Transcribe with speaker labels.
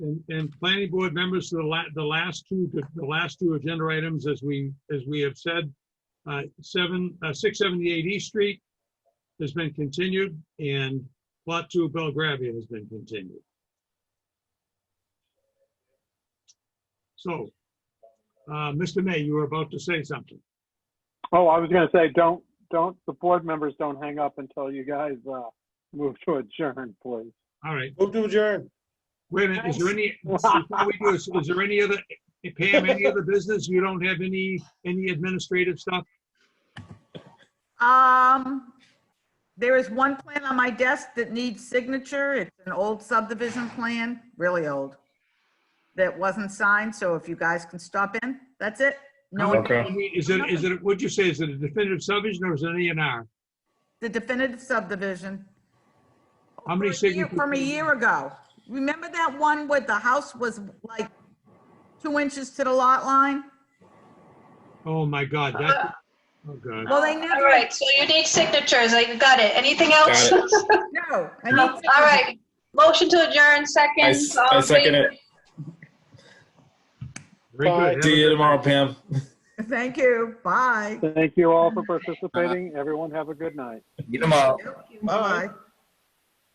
Speaker 1: And, and planning board members, the la, the last two, the last two agenda items, as we, as we have said, uh, seven, uh, six seventy-eight East Street has been continued and plot two Belgravia has been continued. So, uh, Mr. May, you were about to say something.
Speaker 2: Oh, I was gonna say, don't, don't, the board members don't hang up until you guys, uh, move to adjourn, please.
Speaker 1: All right.
Speaker 3: Move to adjourn.
Speaker 1: Wait a minute, is there any, before we do, this, is there any other, Pam, any other business? You don't have any, any administrative stuff?
Speaker 4: Um, there is one plan on my desk that needs signature. It's an old subdivision plan, really old, that wasn't signed, so if you guys can stop in, that's it. No,
Speaker 1: No,
Speaker 4: one-
Speaker 1: I mean, Is it, is it, what'd you say, is it a definitive subdivision or is it an A and R?
Speaker 4: the definitive subdivision.
Speaker 1: How many
Speaker 4: from a year-
Speaker 1: signatures?
Speaker 4: From a year ago. Remember that one where the house was like two inches to the lot line?
Speaker 1: Oh, my God, that, oh, God.
Speaker 4: Well, they
Speaker 5: All
Speaker 4: never,
Speaker 5: right, so you need signatures, I got it. Anything else?
Speaker 3: Got
Speaker 4: no. I need
Speaker 5: All right, motion to adjourn,
Speaker 3: I
Speaker 5: second.
Speaker 3: s-
Speaker 5: all
Speaker 3: I
Speaker 5: in
Speaker 3: second
Speaker 5: favor?
Speaker 3: it.
Speaker 1: Very good. Have a
Speaker 3: See you
Speaker 1: good night.
Speaker 3: tomorrow, Pam.
Speaker 4: Thank you, bye.
Speaker 2: Thank you all for participating. Everyone have a good night.
Speaker 6: Get them out.
Speaker 4: Bye.